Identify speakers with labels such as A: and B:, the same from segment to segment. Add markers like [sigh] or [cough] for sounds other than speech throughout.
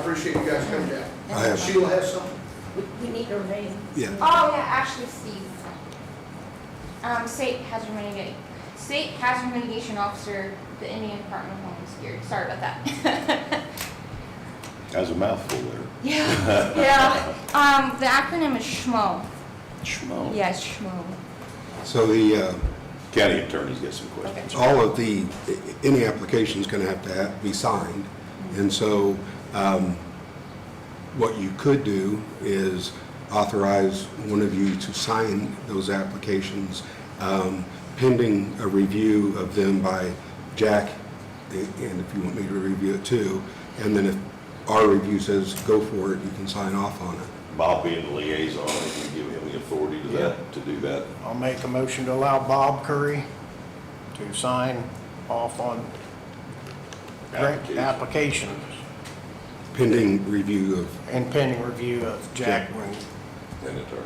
A: appreciate you guys coming down.
B: I have-
A: Sheila has something?
C: We, we need her name.
B: Yeah.
D: Oh, yeah, actually, Steve. Um, state hazard mitigation, state hazard mitigation officer, the Indian Department of Homeland Security, sorry about that. [laughs]
E: That's a mouthful there. [laughs]
D: Yeah, yeah, um, the acronym is SHMO,
E: Schmo.
D: yes, SHMO.
B: So the, uh,
E: County attorney's got some questions.
B: all of the, any application's going to have to have- be signed. And so um, what you could do is authorize one of you to sign those applications um, pending a review of them by Jack, a- and if you want me to review it too. And then if our review says, go for it, you can sign off on it.
E: Bob being the liaison, if you give him the authority to that, to do that.
F: I'll make a motion to allow Bob Curry to sign off on grant
E: Application.
F: applications
B: pending review of,
F: and pending review of Jack Wing.
E: And attorney.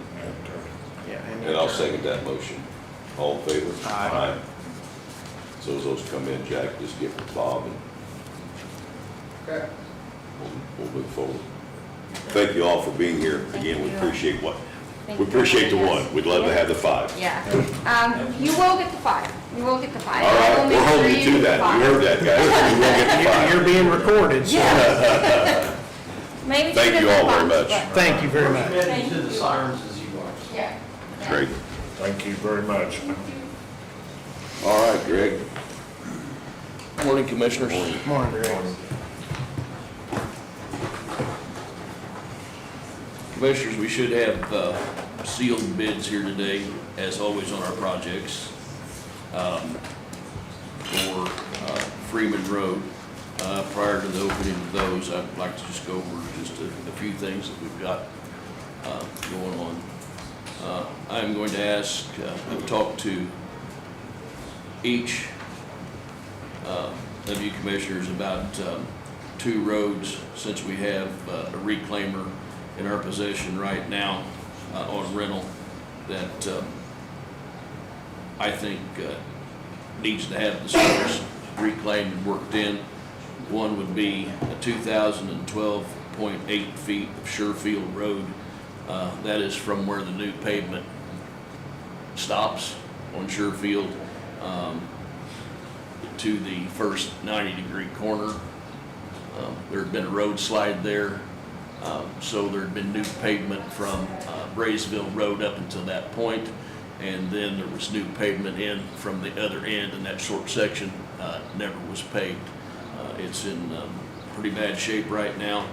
F: Yeah,
E: And I'll second that motion. All in favor?
F: Aye.
E: So as those come in, Jack, just give it to Bob and
A: Okay.
E: we'll, we'll move forward. Thank you all for being here. Again, we
D: Thank you.
E: appreciate what,
D: Thank
E: we
D: you.
E: appreciate the
D: Yes.
E: one. We'd love to have the five.
D: Yeah, um, you will get the five, you will get the five.
E: All
D: I
E: right,
D: will
E: we're
D: make
E: holding
D: sure
E: you to
D: get
E: that.
D: five.
E: You heard
D: [laughs]
E: that, guys. We will get the five.
F: You're being recorded, so
D: Yes. Maybe she
E: [laughs] Thank you
D: doesn't
E: all very
D: box,
E: much.
D: but-
F: thank you very much.
G: Committed to the sirens as you are.
D: Yeah. yeah.
E: Great.
H: Thank you very much.
E: All right, Greg.
G: Morning, Commissioners.
F: Morning, Greg.
G: Commissioners, we should have uh, sealed bids here today, as always on our projects, um, for uh, Freeman Road. Uh, Prior to the opening of those, I'd like to just go over just a a few things that we've got uh, going on. Uh, I'm going to ask, uh, I've talked to each uh, of you commissioners about um, two roads, since we have uh, a reclaimer in our possession right now uh, on rental that um, I think uh, needs to have the service reclaimed and worked in. One would be a 2,012.8 feet of Surefield Road. Uh, That is from where the new pavement stops on Surefield. Um, to the first 90-degree corner. Um, There'd been a road slide there, um, so there'd been new pavement from uh, Braysville Road up until that point, and then there was new pavement in from the other end, and that short section uh, never was paved. Uh, It's in um, pretty bad shape right now,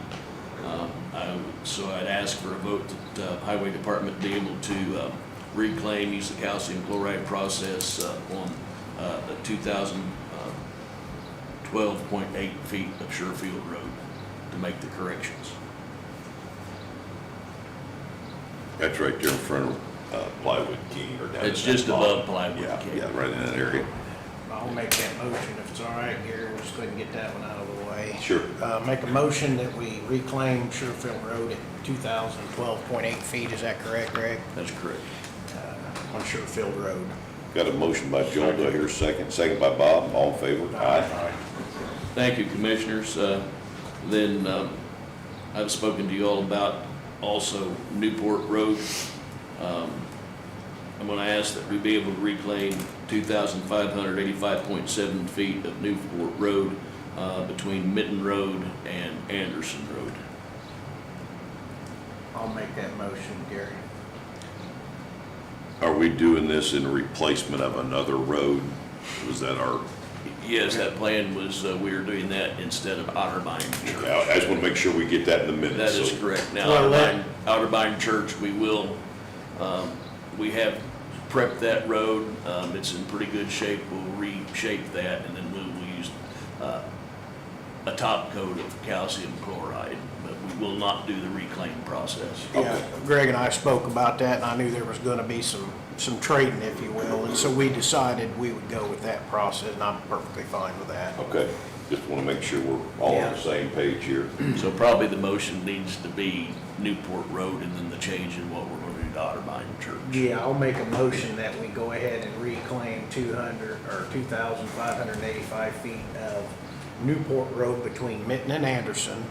G: Um, I- so I'd ask for a vote that uh, Highway Department be able to uh, reclaim, use the calcium chloride process uh, on uh, a 2,000 uh, 12.8 feet of Surefield Road to make the corrections.
E: That's right there in front of uh, Plywood King or down. in
G: It's
E: that
G: just
E: block.
G: above Plywood
E: Yeah,
G: King.
E: yeah, right in that area.
F: I'll make that motion if it's all right, Gary, we'll just go ahead and get that one out of the way.
E: Sure.
F: Uh, make a motion that we reclaim Surefield Road at two thousand twelve point eight feet, is that correct, Greg?
G: That's correct.
F: Uh, On Surefield Road.
E: Got a motion by Joel, do I hear a second? Second by Bob, all in favor? Aye.
G: Thank you, Commissioners. Uh, Then um, I've spoken to you all about also Newport Road. Um, I'm going to ask that we be able to reclaim 2,585.7 feet of Newport Road uh, between Mitten Road and Anderson Road.
F: I'll make that motion, Gary.
E: Are we doing this in replacement of another road? Was that our,
G: Yes, that plan was, uh, we were doing that instead of Otterbein Church.
E: I I just want to make sure we get that in the
G: That
E: minutes.
G: is
E: so-
G: correct. Now,
F: Well, that-
G: Outerbind, Outerbind Church, we will, um, we have prepped that road. Um, It's in pretty good shape. We'll reshape that, and then we will use uh, a top coat of calcium chloride. But we will not do the reclaim process.
F: Yeah, Greg and I spoke about that, and I knew there was gonna be some, some trading, if you will, and so we decided we would go with that process, and I'm perfectly fine with that.
E: Okay, just want to make sure we're all on
F: Yeah.
E: the same page here.
G: So probably the motion needs to be Newport Road and then the change in what we're going to do to Otterbein Church.
F: Yeah, I'll make a motion that we go ahead and reclaim two hundred, or two thousand five hundred and eighty-five feet of Newport Road between Mitten and Anderson